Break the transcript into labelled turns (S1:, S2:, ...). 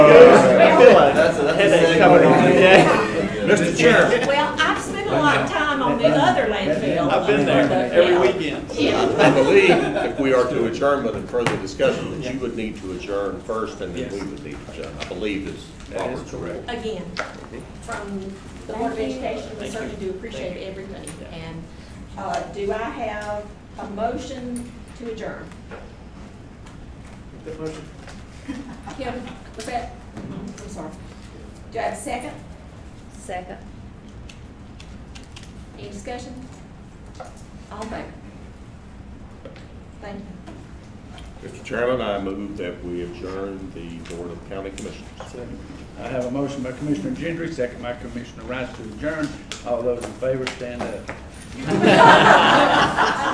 S1: Mr. Chair,
S2: Well, I've spent a lot of time on the other landfill. uh,
S1: I've been there every weekend.
S2: Yeah.
S3: I believe if we are to adjournment and further discussion, that you would need to adjourn first and then we would need to adjourn. I believe is Robert's correct.
S2: again, from the Board of Education, we certainly do appreciate everything. And uh, do I have a motion to adjourn? Kim, was that, I'm sorry. Do I have a second? Second. Any discussion? All in favor? Thank you.
S3: Mr. Chairman, I move that we adjourn the Board of County Commissioners.
S1: I have a motion by Commissioner Gendry, second by Commissioner Rice to adjourn. All those in favor, stand up.